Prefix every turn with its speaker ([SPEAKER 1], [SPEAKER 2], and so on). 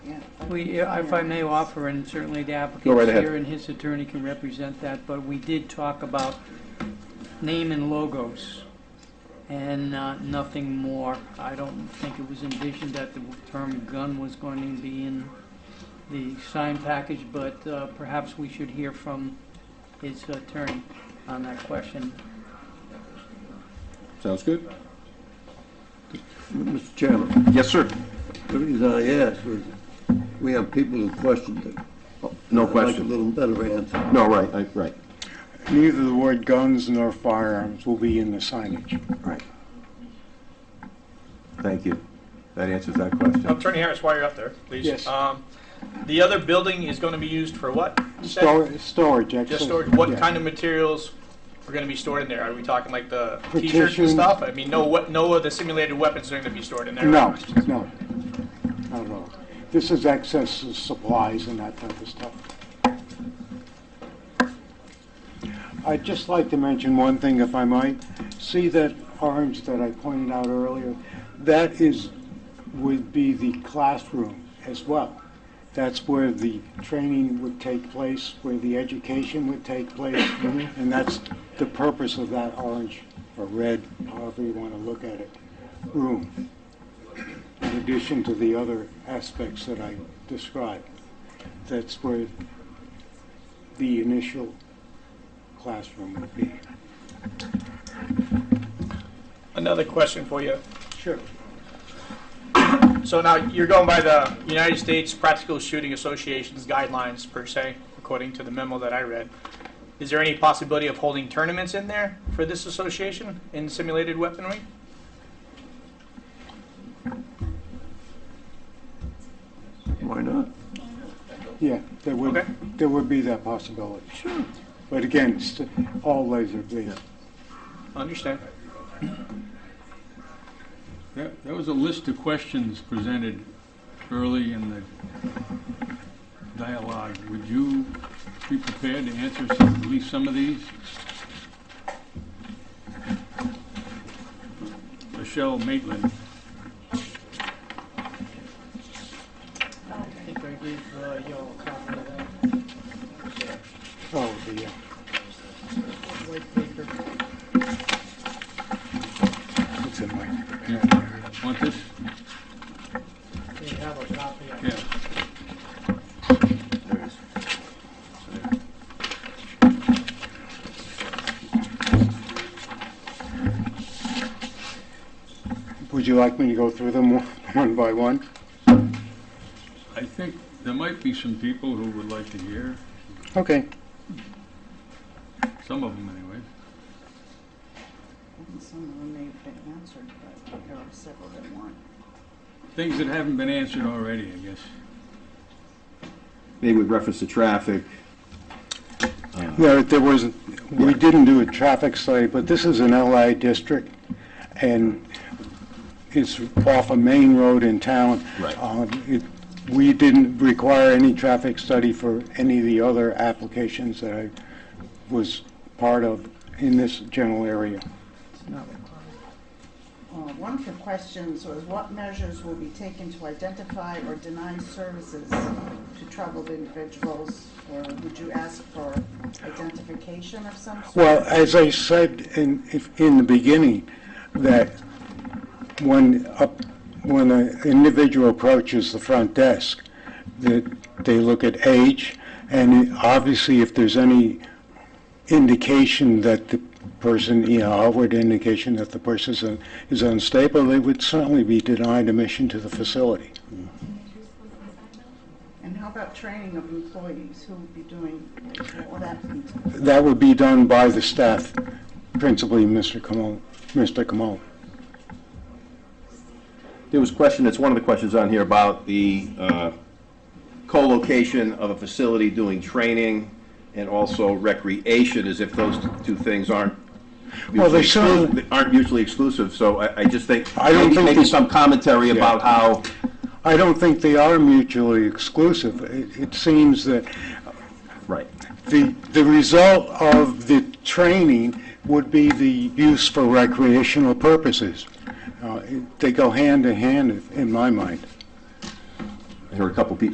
[SPEAKER 1] We, if I may offer, and certainly the
[SPEAKER 2] Go right
[SPEAKER 1] applicant's
[SPEAKER 2] ahead.
[SPEAKER 1] here and his attorney can represent that, but we did talk about name and logos and uh, nothing more. I don't think it was envisioned that the term gun was going to be in the sign package, but uh, perhaps we should hear from his attorney on that question.
[SPEAKER 2] Sounds good?
[SPEAKER 3] Mr. Chairman,
[SPEAKER 2] Yes, sir.
[SPEAKER 3] the reason I asked was, we have people who questioned it.
[SPEAKER 2] No
[SPEAKER 3] I'd like a
[SPEAKER 2] question.
[SPEAKER 3] little better answer.
[SPEAKER 2] No, right, I- right.
[SPEAKER 4] Neither the word guns nor firearms will be in the signage.
[SPEAKER 2] Right. Thank you. That answers that question.
[SPEAKER 5] Attorney Harris, while you're up there, please.
[SPEAKER 4] Yes.
[SPEAKER 5] Um, The other building is going to be used for what?
[SPEAKER 4] Stor- Storage, actually.
[SPEAKER 5] Just storage, what
[SPEAKER 4] Yeah.
[SPEAKER 5] kind of materials are going to be stored in there? Are we talking like the t-shirts and
[SPEAKER 4] Partitions.
[SPEAKER 5] stuff? I mean, no, we- no of the simulated weapons are going to be stored in there?
[SPEAKER 4] No,
[SPEAKER 5] right?
[SPEAKER 4] no, not at all. This is excess of supplies and that type of stuff. I'd just like to mention one thing, if I might. See that orange that I pointed out earlier? That is, would be the classroom as well. That's where the training would take place, where the education would take place, and that's the purpose of that orange or red, however you want to look at it, room in addition to the other aspects that I described. That's where the initial classroom would be.
[SPEAKER 5] Another question for you.
[SPEAKER 4] Sure.
[SPEAKER 5] So now, you're going by the United States Practical Shooting Association's guidelines per se, according to the memo that I read. Is there any possibility of holding tournaments in there for this association in simulated weaponry?
[SPEAKER 3] Why not?
[SPEAKER 4] Yeah, there would,
[SPEAKER 5] Okay.
[SPEAKER 4] there would be that possibility. Sure. But again, it's all laser, please.
[SPEAKER 5] Understand.
[SPEAKER 6] That, that was a list of questions presented early in the dialogue. Would you be prepared to answer some, at least some of these? Michelle Maitland,
[SPEAKER 1] I think I gave uh, you all a copy of that
[SPEAKER 4] Oh, the, uh,
[SPEAKER 1] white paper.
[SPEAKER 4] it's in my,
[SPEAKER 6] want this?
[SPEAKER 1] You have a copy of it.
[SPEAKER 6] Yeah.
[SPEAKER 4] would you like me to go through them one- one by one?
[SPEAKER 6] I think there might be some people who would like to hear,
[SPEAKER 4] Okay.
[SPEAKER 6] some of them anyway.
[SPEAKER 7] Some of them may have been answered, but there are several that weren't.
[SPEAKER 6] Things that haven't been answered already, I guess.
[SPEAKER 2] Maybe with reference to traffic,
[SPEAKER 4] No, there was, we didn't do a traffic study, but this is an LI district, and it's off a main road in town.
[SPEAKER 2] Right.
[SPEAKER 4] Um, it- We didn't require any traffic study for any of the other applications that I was part of in this general area.
[SPEAKER 7] Uh, One of the questions was what measures will be taken to identify or deny services to troubled individuals? Or would you ask for identification of some sort?
[SPEAKER 4] Well, as I said in, if- in the beginning, that when, up- when an individual approaches the front desk, that they look at age, and obviously if there's any indication that the person, you know, outward indication that the person is un- is unstable, they would certainly be denied admission to the facility.
[SPEAKER 7] And how about training of employees? Who would be doing, what would that be?
[SPEAKER 4] That would be done by the staff, principally Mr. Camone, Mr. Camone.
[SPEAKER 2] there was question, it's one of the questions on here about the uh, co-location of a facility doing training and also recreation, as if those two things aren't
[SPEAKER 4] Well, they
[SPEAKER 2] mutually
[SPEAKER 4] certainly-
[SPEAKER 2] exclu- aren't mutually exclusive, so I I just think,
[SPEAKER 4] I don't
[SPEAKER 2] maybe-
[SPEAKER 4] think
[SPEAKER 2] maybe
[SPEAKER 4] they-
[SPEAKER 2] some commentary about how
[SPEAKER 4] I don't think they are mutually exclusive. It, it seems that
[SPEAKER 2] Right.
[SPEAKER 4] the, the result of the training would be the use for recreational purposes. Uh, it- They go hand in hand, in my mind.
[SPEAKER 2] I heard a couple people